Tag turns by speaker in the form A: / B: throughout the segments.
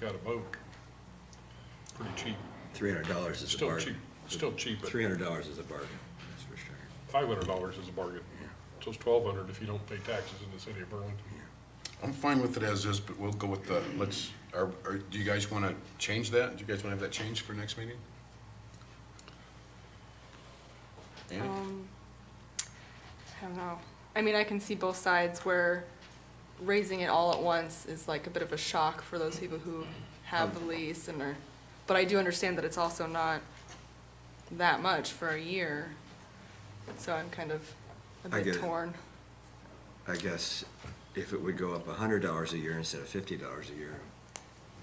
A: got a boat. Pretty cheap,
B: Three hundred dollars is a
A: still cheap,
B: bargain.
A: still cheap, but
B: Three hundred dollars is a bargain, that's for sure.
A: five hundred dollars is a bargain. So it's twelve hundred if you don't pay taxes in the city of Berlin.
C: I'm fine with it as is, but we'll go with the, let's, are, are, do you guys want to change that? Do you guys want to have that changed for next meeting? Annie?
D: Um, I don't know. I mean, I can see both sides where raising it all at once is like a bit of a shock for those people who have
B: Um,
D: the lease and are, but I do understand that it's also not that much for a year. So I'm kind of a
B: I get
D: bit
B: it.
D: torn.
B: I guess if it would go up a hundred dollars a year instead of fifty dollars a year,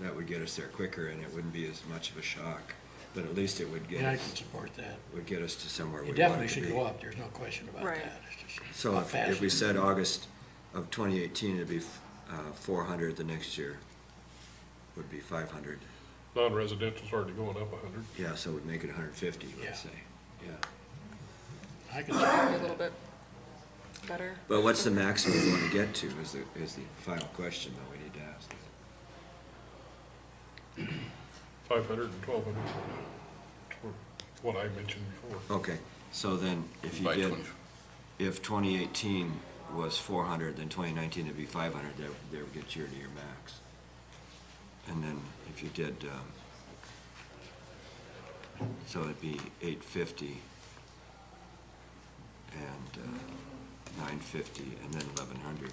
B: that would get us there quicker and it wouldn't be as much of a shock. But at least it would get
E: Yeah, I
B: us,
E: can support that.
B: would get us to somewhere we want it
E: It
B: to be.
E: definitely should go up, there's no question about
D: Right.
E: that. It's just
B: So
E: how
B: if, if
E: fast
B: we
E: it-
B: said August of twenty eighteen, it'd be, uh, four hundred, the next year would be five hundred.
A: Non-residential's already going up a hundred.
B: Yeah, so we'd make it hundred fifty,
E: Yeah.
B: let's say, yeah.
E: I can support
D: Maybe A little bit better.
B: But what's the maximum we wanna get to is the, is the final question that we need to ask.
A: Five hundred and twelve hundred. What I mentioned before.
B: Okay, so then if you
C: By
B: did,
C: 20.
B: if twenty eighteen was four hundred, then twenty nineteen would be five hundred, that, that would get year to year max. And then if you did, um, so it'd be eight fifty and, uh, nine fifty and then eleven hundred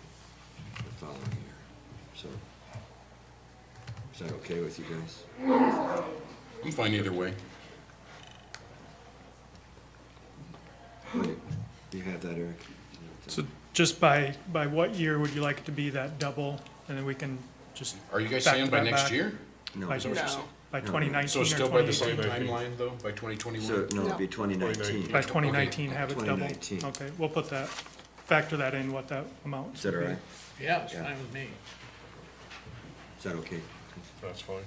B: the following year, so. Is that okay with you guys?
C: I'm fine either way.
B: Wait, You have that, Eric?
F: So just by, by what year would you like it to be that double? And then we can just.
C: Are you guys
F: back
C: saying
F: to
C: by
F: that
C: next
F: back.
C: year?
B: No.
F: By
C: So it's-
D: No.
F: by 2019
C: So
F: or
C: it's still by the
F: 2018?
C: same
A: 2018.
C: timeline though, by twenty
B: So,
C: twenty-one?
B: no, it'd be
D: No.
B: twenty nineteen.
F: By
C: Okay.
F: 2019, have it double?
B: 2019.
F: Okay, we'll put that, factor that in, what that amount.
B: Is that all
F: should be.
B: right?
E: Yeah, it's
B: Yeah.
E: fine with me.
B: Is that okay?
A: That's fine.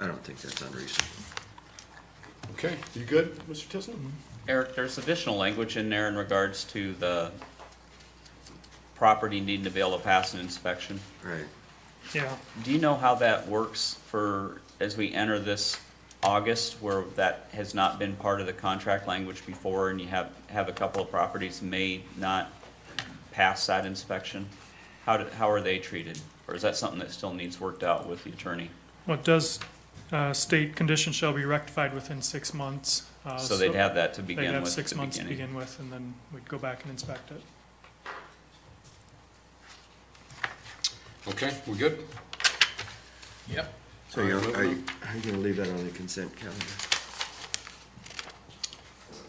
B: I don't think that's unreasonable.
C: Okay, you good, Mr. Tisland?
B: Mm-hmm.
G: Eric, there's additional language in there in regards to the property needing to be able to pass an inspection.
B: Right.
F: Yeah,
G: Do you know how that works for, as we enter this August, where that has not been part of the contract language before, and you have, have a couple of properties may not pass that inspection? How, do- how are they treated? Or is that something that still needs worked out with the attorney?
F: well, it does, uh, state condition shall be rectified within six months. uh,
G: So they'd have that to
F: They'd
G: begin
F: have
G: with at
F: six
G: the
F: months to
G: beginning.
F: begin with, and then we'd go back and inspect it.
C: Okay, we good? Yep.
B: So you're, are you, are you gonna leave that on the consent calendar?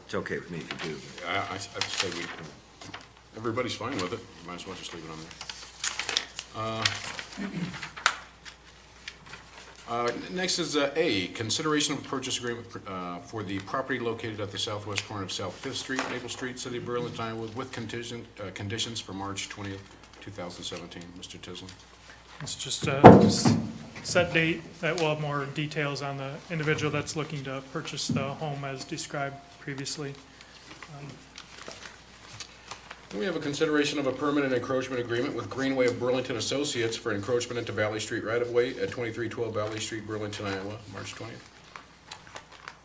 B: It's okay with me if you do.
C: I, I, I'd say we, everybody's fine with it, you might as well just leave it on there. Uh, uh, next is, uh, A, consideration of purchase agreement, uh, for the property located at the southwest corner of South Fifth Street, Maple Street, City of Berlin, Iowa, with contingent, uh, conditions for March twentieth, two thousand seventeen. Mr. Tisland?
F: It's just a s- set date that will have more details on the individual that's looking to purchase the home as described previously.
C: We have a consideration of a permanent encroachment agreement with Greenway of Burlington Associates for encroachment into Valley Street right-of-way at twenty-three twelve Valley Street, Burlington, Iowa, March twentieth.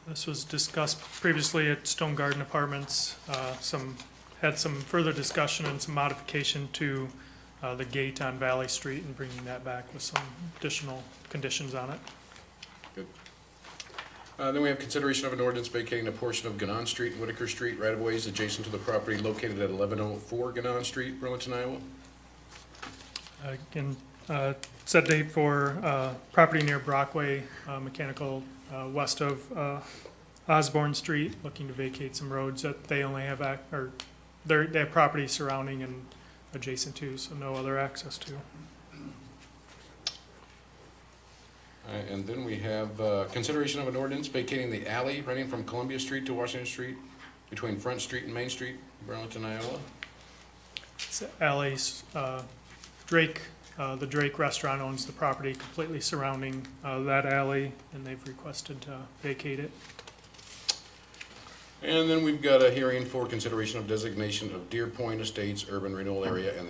F: This was discussed previously at Stone Garden Apartments, uh, some, had some further discussion and some modification to, uh, the gate on Valley Street and bringing that back with some additional conditions on it.
C: Good. Uh, Then we have consideration of an ordinance vacating a portion of Ganon Street and Whitaker Street right-of-ways adjacent to the property located at 1104 Ganon Street, Burlington, Iowa.
F: Again, uh, set date for uh, property near Brockway uh, Mechanical, uh, west of uh, Osborne Street, looking to vacate some roads that they only have, ac- or their, their property surrounding and adjacent to, so no other access to.
C: All right, Uh, And then we have uh, consideration of an ordinance vacating the alley running from Columbia Street to Washington Street, between Front Street and Main Street, Burlington, Iowa.
F: It's alleys, uh, Drake, uh, the Drake Restaurant owns the property completely surrounding uh, that alley, and they've requested to vacate it.
C: And then we've got a hearing for consideration of designation of Deer Point Estates Urban Renewal Area and